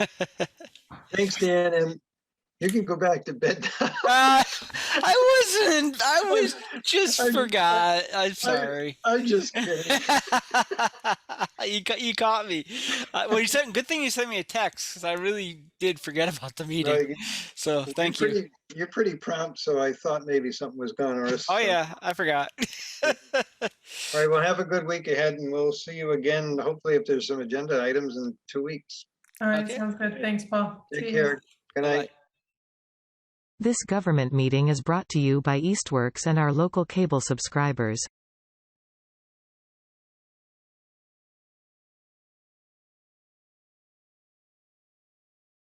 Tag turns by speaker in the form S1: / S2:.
S1: Thanks, Dan, and you can go back to bed. now.
S2: Uh, I wasn't. I was just
S1: I'm-
S2: forgot. I'm sorry.
S1: I'm just kidding.
S2: you ca- you caught me. Uh, well, you sent. Good thing you sent me a text because I really did forget about the meeting.
S1: No, you-
S2: So
S1: you're
S2: thank you.
S1: pretty- You're pretty prompt, so I thought maybe something was done or.
S2: Oh yeah, I forgot.
S1: All right, well, have a good week ahead and we'll see you again, hopefully if there's some agenda items in two weeks.
S3: All right,
S2: Okay.
S3: sounds good. Thanks, Paul.
S1: Take
S3: See you.
S1: care. Good night.
S2: Bye.
S4: This government meeting is brought to you by Eastworks and our local cable subscribers.